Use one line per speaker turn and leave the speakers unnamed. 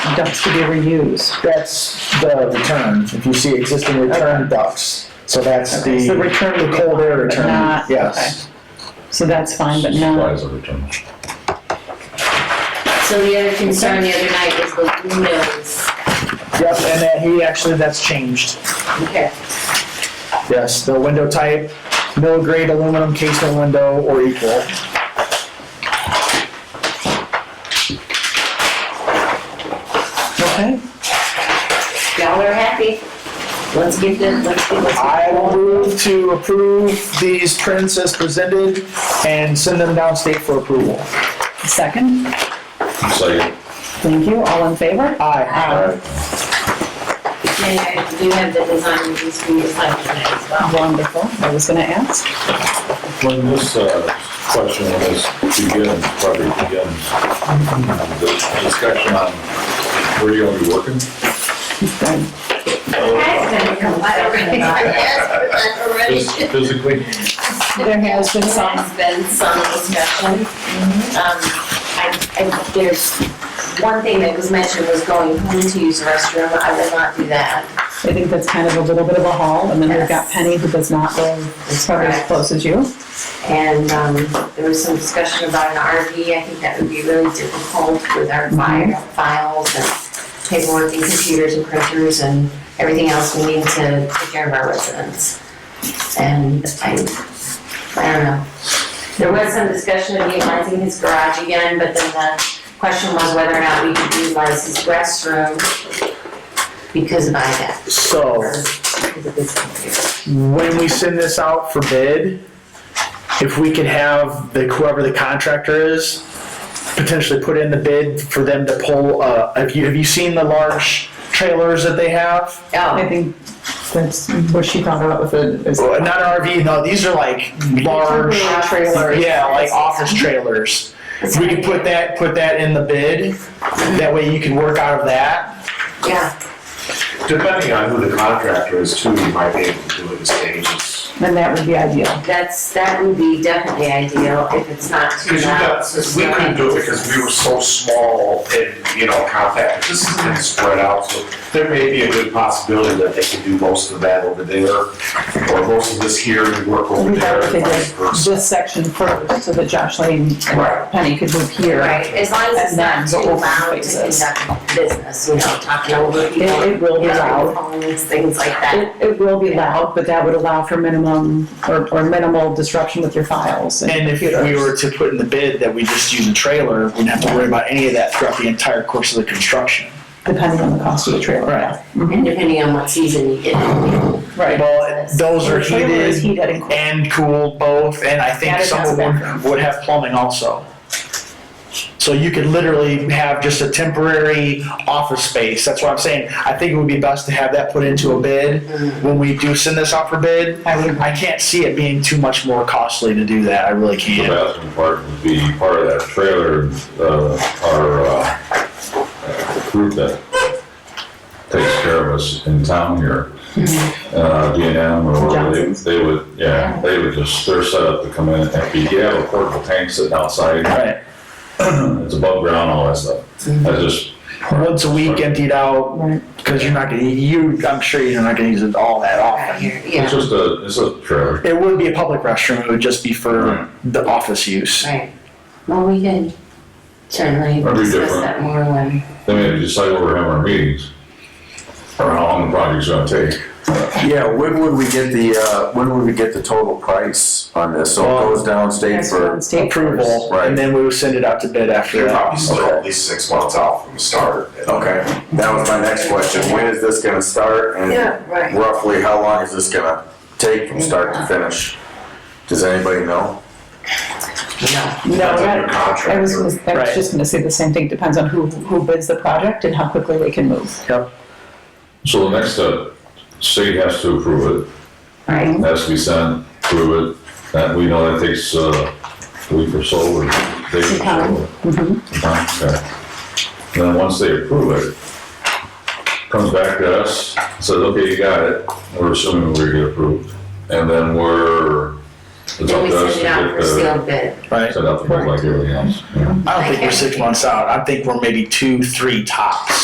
ducts to be reused.
That's the return, if you see existing return ducts, so that's
Okay, so
the
return would be
cold air
fine, but
return,
not-
yes.
okay. So that's fine, but not,
Supplies of return.
So the other concern the other night was the windows.
Yep, and that he actually, that's changed.
Okay.
Yes, the window type, mill grade aluminum casement window or equal.
okay?
Y'all are happy. Let's get the, let's get, let's.
I will move to approve these prints as presented and send them downstate for approval.
Second,
Second.
thank you, all in favor?
Aye.
And I do have the design reviews for you to sign today as well.
Wonderful, I was gonna ask.
When this uh, question was begins, probably begins, the discussion on where you're gonna be working,
That's gonna come by already. I asked for that already.
phys- physically,
There has been
There
some,
has been some discussion. Um, I, I, there's, one thing that was mentioned was going home to use the restroom. I will not do that.
I think that's kind of a little bit of a haul, and then we've got
Yes.
Penny who does not live as far as
Correct.
close as you.
And um, there was some discussion about an RV. I think that would be really difficult with our fi-
Mm-hmm.
files and paperwork and computers and printers and everything else we need to take care of our residents. And I, I don't know. There was some discussion of utilizing his garage again, but then the question was whether or not we could utilize his restroom because of IDAC.
Oh.
So,
or because of his computer.
when we send this out for bid, if we could have the, whoever the contractor is, potentially put in the bid for them to pull, uh, have you, have you seen the large trailers that they have?
Oh,
I think that's what she thought about with the, is
Well, Not an RV, no, these are like large,
Trailers.
yeah, like office trailers. If we could put that, put that in the bid, that way you can work out of that.
Yeah,
Depending on who the contractor is too, you might be able to do it as agents.
then that would be ideal.
That's, that would be definitely ideal if it's not too
Because you
loud.
got, we couldn't do it because we were so small and, you know, compact, this is gonna spread out, so there may be a good possibility that they can do most of that over there, or most of this here and work over
We
there
thought they
and vice
did
versa.
this section first, so that Josh Lane and
Right.
Penny could move here.
Right, as long as it's not too loud to conduct business, you know, talking over people.
It- it will be
you know,
loud.
Phones, things like that.
It, it will be loud, but that would allow for minimum, or, or minimal disruption with your files.
And if we were to put in the bid that we just use a trailer, we wouldn't have to worry about any of that throughout the entire course of the construction.
Depending on the cost of the trailer. Mm-hmm.
Right.
And depending on what season you get in.
Right.
Well, those are
The trailer is
heated
heated and cooled.
and cooled both, and I think
Added
some
as a
of them
bathroom.
would have plumbing also. So you could literally have just a temporary office space, that's what I'm saying. I think it would be best to have that put into a bid when we do send this out for bid.
I would-
I can't see it being too much more costly to do that, I really
the
can't.
bathroom part would be part of that trailer, uh, our, uh, group that takes care of us in town here. Uh, D and M or whatever, they,
Johnson's.
they would, yeah, they would just, they're set up to come in and empty. You have a portable tank sitting outside.
Right,
It's above ground, all that stuff. That's just.
once a week emptied out,
Right.
cause you're not gonna, you, I'm sure you're not gonna use it all that
Right
often.
here,
It's
yeah,
just a, it's a trailer.
It would be a public restroom, it would just be for the office use.
right. Well, we could certainly
That'd be
discuss
different.
that more when,
They may decide where we're having our meetings or how long the project's gonna take.
Yeah, when would we get the, uh, when would we get the total price on this? So it goes downstate
That's on
for,
state.
Approval, and then we would send it out to bid after
You're
that.
probably still at least six months out from the start.
okay, that was my next question. When is this gonna start?
Yeah,
and
right.
Roughly, how long is this gonna take from start to finish? Does anybody
no,
know?
No,
Depends on
that-
your
I was,
contractor.
I was just gonna say the same thing, depends on who, who bids the project and how quickly they can move.
So the next step, state has to approve
right?
it, has to be sent, approve it, that, we know that takes uh, a week or so, or days or so.
Mm-hmm.
Okay. Then once they approve it, comes back to us, says, okay, you got it, we're assuming we're gonna get approved, and then we're. it's
Then
up
we
to us
send
to
it out
get
for
the-
sealed bid.
Right.
Set up like everything else.
I don't think we're six months out, I think we're maybe two, three tops.